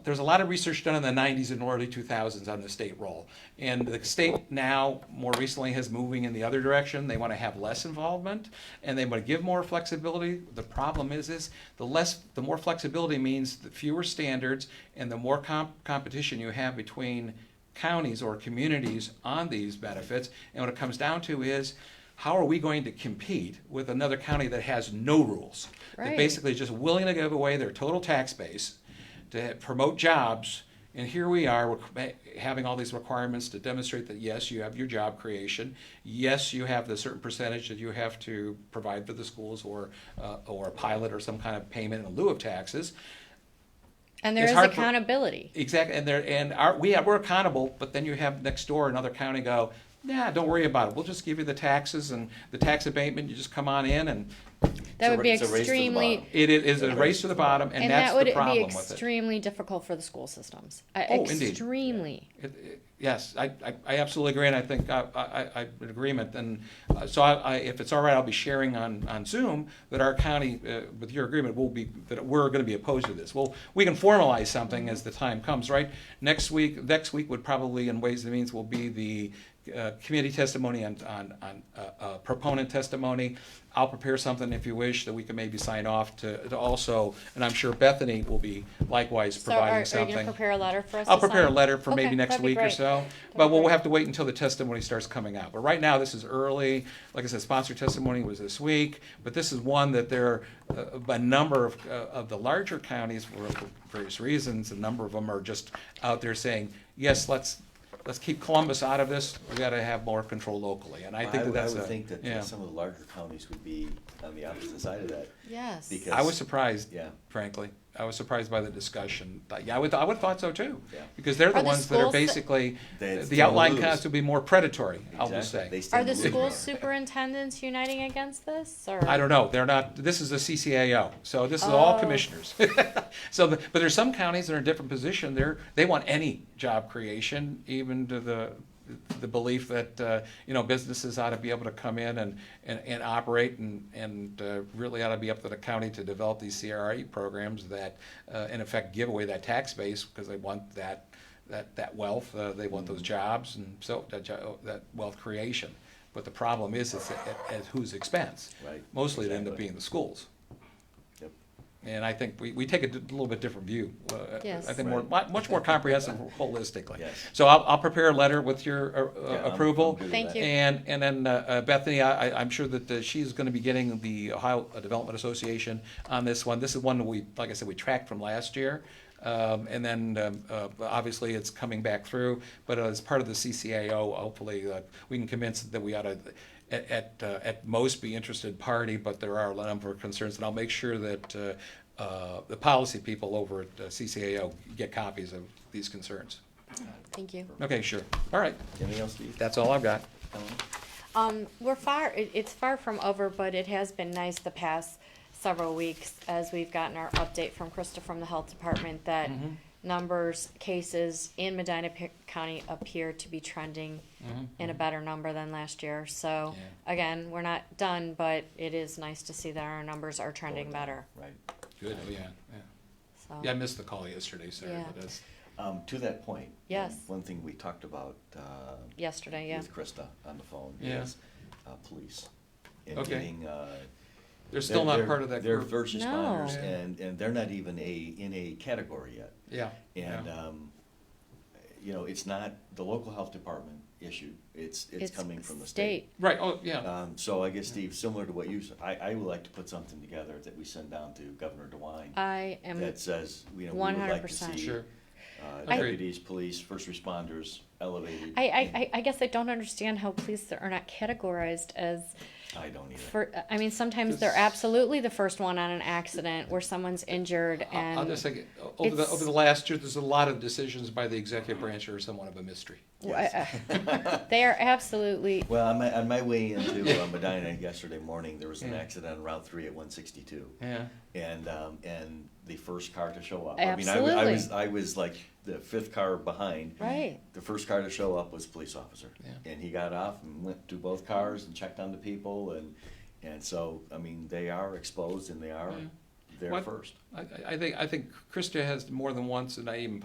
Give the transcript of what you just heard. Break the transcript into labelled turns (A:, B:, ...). A: there's a lot of research done in the 90s and early 2000s on the state role. And the state now, more recently, is moving in the other direction. They want to have less involvement and they want to give more flexibility. The problem is, is the less, the more flexibility means the fewer standards and the more comp- competition you have between counties or communities on these benefits. And what it comes down to is, how are we going to compete with another county that has no rules? That
B: Right.
A: basically is just willing to give away their total tax base to promote jobs. And here we are, we're ma- having all these requirements to demonstrate that yes, you have your job creation. Yes, you have the certain percentage that you have to provide for the schools or, uh, or a pilot or some kind of payment in lieu of taxes.
B: And there
A: It's
B: is
A: hard for-
B: accountability.
A: Exactly, and there, and our, we have, we're accountable, but then you have next door another county go, nah, don't worry about it, we'll just give you the taxes and the tax abatement, you just come on in and
B: That would be
C: it's a race to the
B: extremely,
C: bottom.
A: it i- is a race to the bottom, and
B: and that
A: that's
B: would
A: the
B: be
A: problem with it.
B: extremely difficult for the school systems. Uh,
A: Oh, indeed.
B: Extremely.
A: It- it- Yes, I, I, I absolutely agree, and I think I, I, I- I'm in agreement, and uh, so I, I, if it's all right, I'll be sharing on, on Zoom that our county, uh, with your agreement, will be, that we're gonna be opposed to this. Well, we can formalize something as the time comes, right? Next week, next week would probably, in Ways and Means, will be the uh, committee testimony on, on, on uh, uh, proponent testimony. I'll prepare something if you wish that we can maybe sign off to, to also, and I'm sure Bethany will be likewise
B: So are, are
A: providing
B: you
A: something.
B: gonna prepare a letter for us
A: I'll
B: to
A: prepare a
B: sign?
A: letter for
B: Okay,
A: maybe next
B: that'd be
A: week or
B: great.
A: so, but
B: be
A: we'll
B: great.
A: have to wait until the testimony starts coming out. But right now, this is early. Like I said, sponsored testimony was this week, but this is one that there, uh, a number of, uh, of the larger counties, for various reasons, a number of them are just out there saying, yes, let's, let's keep Columbus out of this. We gotta have more control locally, and I think that
C: would-
A: that's a.
C: I would think that
A: yeah.
C: uh, some of the larger counties would be on the opposite side of that.
B: Yes.
C: Because-
A: I was surprised,
C: Yeah.
A: frankly. I was surprised by the discussion. But Yeah, I would, I would have thought so too.
C: Yeah.
A: Because they're the
B: Are the
A: ones that are
B: schools that-
A: basically,
C: They- it's
A: the outlying
C: gonna lose.
A: counties would be more predatory, I will
C: Exactly. They
A: say.
C: stand
B: Are the
C: to lose
B: school
C: more.
B: superintendents uniting against this or?
A: I don't know, they're not, this is a CCAO, so this is all
B: Oh.
A: commissioners. So, the- but there's some counties that are in a different position, they're, they want any job creation, even to the, the belief that, uh, you know, businesses ought to be able to come in and, and, and operate and, and uh, really ought to be up to the county to develop these CRE programs that, uh, in effect, give away that tax base, because they want that, that, that wealth, uh, they want those jobs, and so, that, jo- that wealth creation. But the problem is, it's at, at whose expense?
C: Right,
A: Mostly it end up
C: exactly.
A: being the schools.
C: Yep.
A: Uh, And I think we, we take a d- little bit different view. uh,
B: Yes.
A: I think more,
C: Right.
A: mu- much more comprehensive holistically.
C: Yes.
A: So I'll, I'll prepare a letter with your uh,
C: Yeah, I'm-
A: uh,
C: I'm
A: approval.
C: good with
B: Thank
C: that.
B: you.
A: And, and then uh, uh, Bethany, I, I- I'm sure that uh, she's gonna be getting the Ohio Development Association on this one. This is one that we, like I said, we tracked from last year. Um, And then, um, uh, obviously, it's coming back through, but as part of the CCAO, hopefully, uh, we can convince that we ought to, at, at, uh, at most, be interested party, but there are a number of concerns, and I'll make sure that uh, uh, the policy people over at uh, CCAO get copies of these concerns.
B: Thank you.
A: Okay, sure. All right.
C: Anything else, Steve?
A: That's all I've got.
C: Ellen?
B: Um, we're far, it, it's far from over, but it has been nice the past several weeks as we've gotten our update from Krista from the health department that
C: Mm-hmm.
B: numbers, cases in Medina P- County appear to be trending
C: Mm-hmm.
B: in a better number than last year. So
A: Yeah.
B: again, we're not done, but it is nice to see that our numbers are trending better.
C: Right.
A: Good, yeah, yeah.
B: So
A: Yeah, I missed the call yesterday, sorry,
B: Yeah.
A: but that's,
C: Um, to that point. one-
B: Yes.
C: One thing we talked about, uh,
B: yesterday, yeah.
C: with Krista on the phone
A: Yeah.
C: is, uh, police. and
A: Okay.
C: getting, uh,
A: they're still not part of that
C: They're
A: group.
C: first
B: No.
C: responders
A: Yeah.
C: and, and they're not even a, in a category yet.
A: Yeah.
C: And,
A: yeah.
C: um, you know, it's not the local health department issue, it's, it's coming from the state.
A: Right, oh, yeah,
C: Um, so I guess Steve, similar to what you, s- I, I would like to put something together that we send down to Governor DeWine
B: I am,
C: that says, you know, we would like to
B: 100%.
C: see.
A: sure.
C: uh,
A: I-
C: Deputies, police, first responders elevated.
B: I, I, I- I guess I don't understand how police are not categorized as
C: I don't either.
B: For, I mean, sometimes they're
A: Just-
B: absolutely the first one on an accident where someone's injured
A: I'll
B: and.
A: I'll just say, o- over the,
B: it's-
A: over the last year, there's a lot of decisions by the executive branch are somewhat of a mystery.
B: Wha- uh, They are absolutely,
C: Well, on my, on my way into uh, Medina yesterday morning, there was an
A: Yeah.
C: accident on Route Three at one sixty-two,
A: Yeah.
C: and um, and the first car to show up. I mean, I wa- I
B: Absolutely.
C: was I was like the fifth car behind.
B: right,
C: The first car to show up was a police officer,
A: Yeah.
C: and he got off and went to both
B: Mm-hmm.
C: cars and checked on the people, and and so I mean they are exposed and they are there
A: What-
C: first.
A: I, I- I think, I think Krista has more than once, and I even